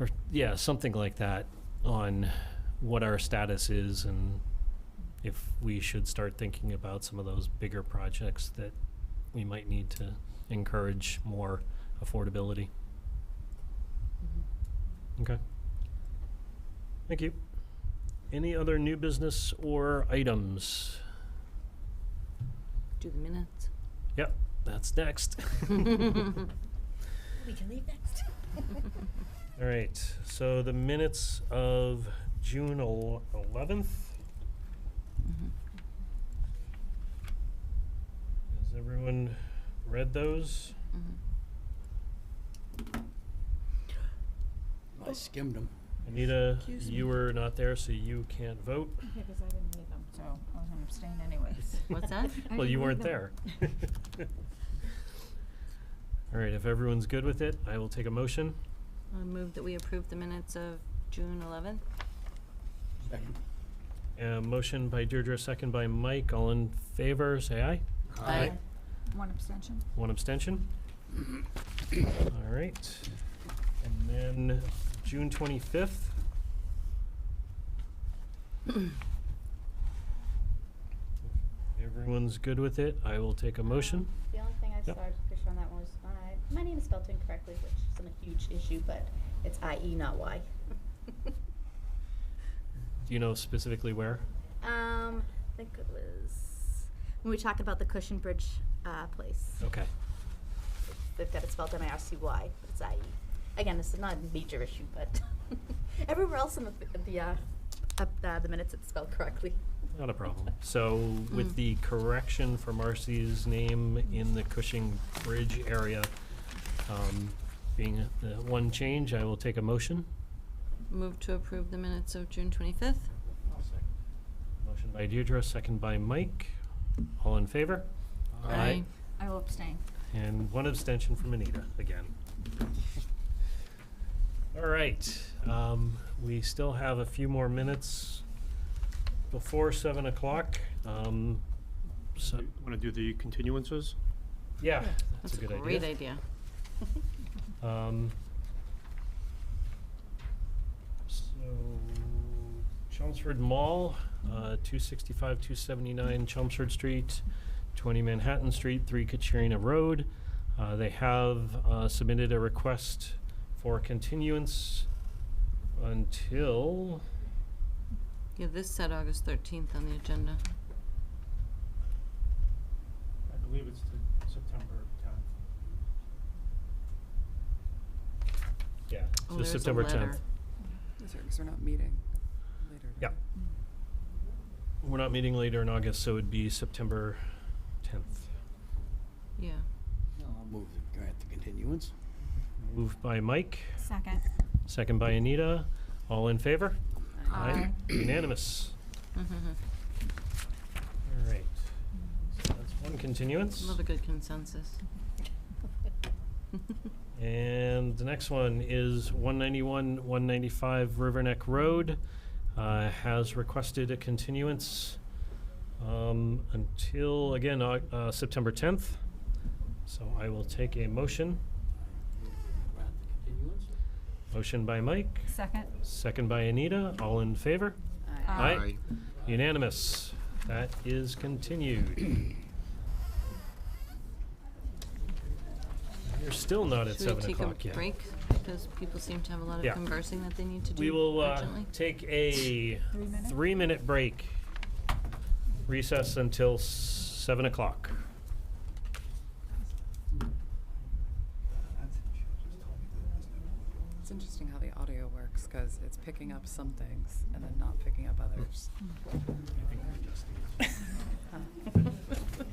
or, yeah, something like that on what our status is and if we should start thinking about some of those bigger projects that we might need to encourage more affordability. Okay. Thank you. Any other new business or items? Do the minutes. Yep, that's next. We can leave next. All right, so the minutes of June el- 11th. Mm-hmm. Has everyone read those? Mm-hmm. I skimmed them. Anita, Excuse you me. were not there, so you can't vote. Yeah, because I didn't need them, so I was gonna abstain anyways. What's that? Well, you weren't there. didn't All right, if everyone's good with it, I will take a motion. I move that we approve the minutes of June 11th. Second. A motion by Deirdre, second by Mike. All in favor, say aye. Aye. One abstention? One abstention. All right. And then June 25th. If Everyone's good with it. I will take a motion. The only thing I Yep. saw, I was pretty sure on that one was my, my name is spelled incorrectly, which isn't a huge issue, but it's I-E, not Y. Do you know specifically where? Um, I think it was, when we talked about the Cushion Bridge, uh, place. Okay. They've got it spelled M-I-R-C-Y, but it's I-E. Again, this is not a major issue, but everywhere else in the, the, uh, up, uh, the minutes it's spelled correctly. Not a problem. So with the correction for Marcy's name in the Cushing Bridge area, um, being the one change, I will take a motion. Move to approve the minutes of June 25th. Motion by Deirdre, second by Mike. All in favor? Aye. I will abstain. And one abstention from Anita, again. All right, um, we still have a few more minutes before seven o'clock. Um, so, Want to do the continuances? yeah, that's That's a good idea. Great idea. Um, so, Chelmsford Mall, uh, 265, 279 Chelmsford Street, 20 Manhattan Street, 3 Katrina Road. Uh, they have uh, submitted a request for continuance until, Yeah, this said August 13th on the agenda. I believe it's to September 10th. yeah, Oh, so there's a September 10th. letter. That's right, because we're not meeting later. Yeah. We're not meeting later in August, so it'd be September 10th. Yeah. No, I'll move the grant the continuance. Moved by Mike, Second. second by Anita. All in favor? Aye. Unanimous. Mm-hmm. All right. So that's one continuance. Love a good consensus. And the next one is 191, 195 River Neck Road. uh, Has requested a continuance um, until, again, Au- uh, September 10th. So I will take a motion. Grant the continuance? Motion by Mike, Second? second by Anita. All in favor? Aye. Unanimous. That is continued. You're still not at Should we seven take a o'clock yet. break? Because people seem to have a lot Yeah. of conversing that they need to do We will uh, urgently. take a Three minutes? three-minute break. Recess until s- seven o'clock. It's interesting how the audio works, because it's picking up some things and then not picking up others.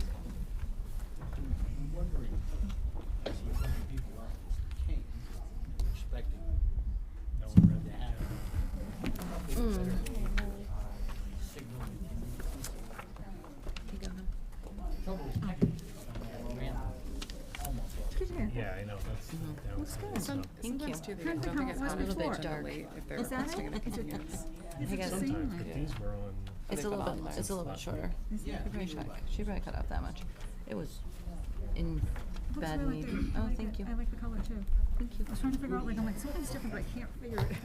I'm wondering, I see how many people out this came, expecting no one read that. Mm. Yeah, I know, that's. that was- so- Thank you. Sometimes too, they don't think it's on a little until bit dark. late if they're Is that requesting a it? Is it- continuance. I guess Sometimes, but these were on, It's a They've little gone bit, online. it's a little bit shorter. Yeah. Let me check. She probably cut out that much. It was in Looks bad really need. good. I Oh, like thank it. you. I like the color too. think you I was trying to figure out, like, I'm like, something's different, but I can't figure it out.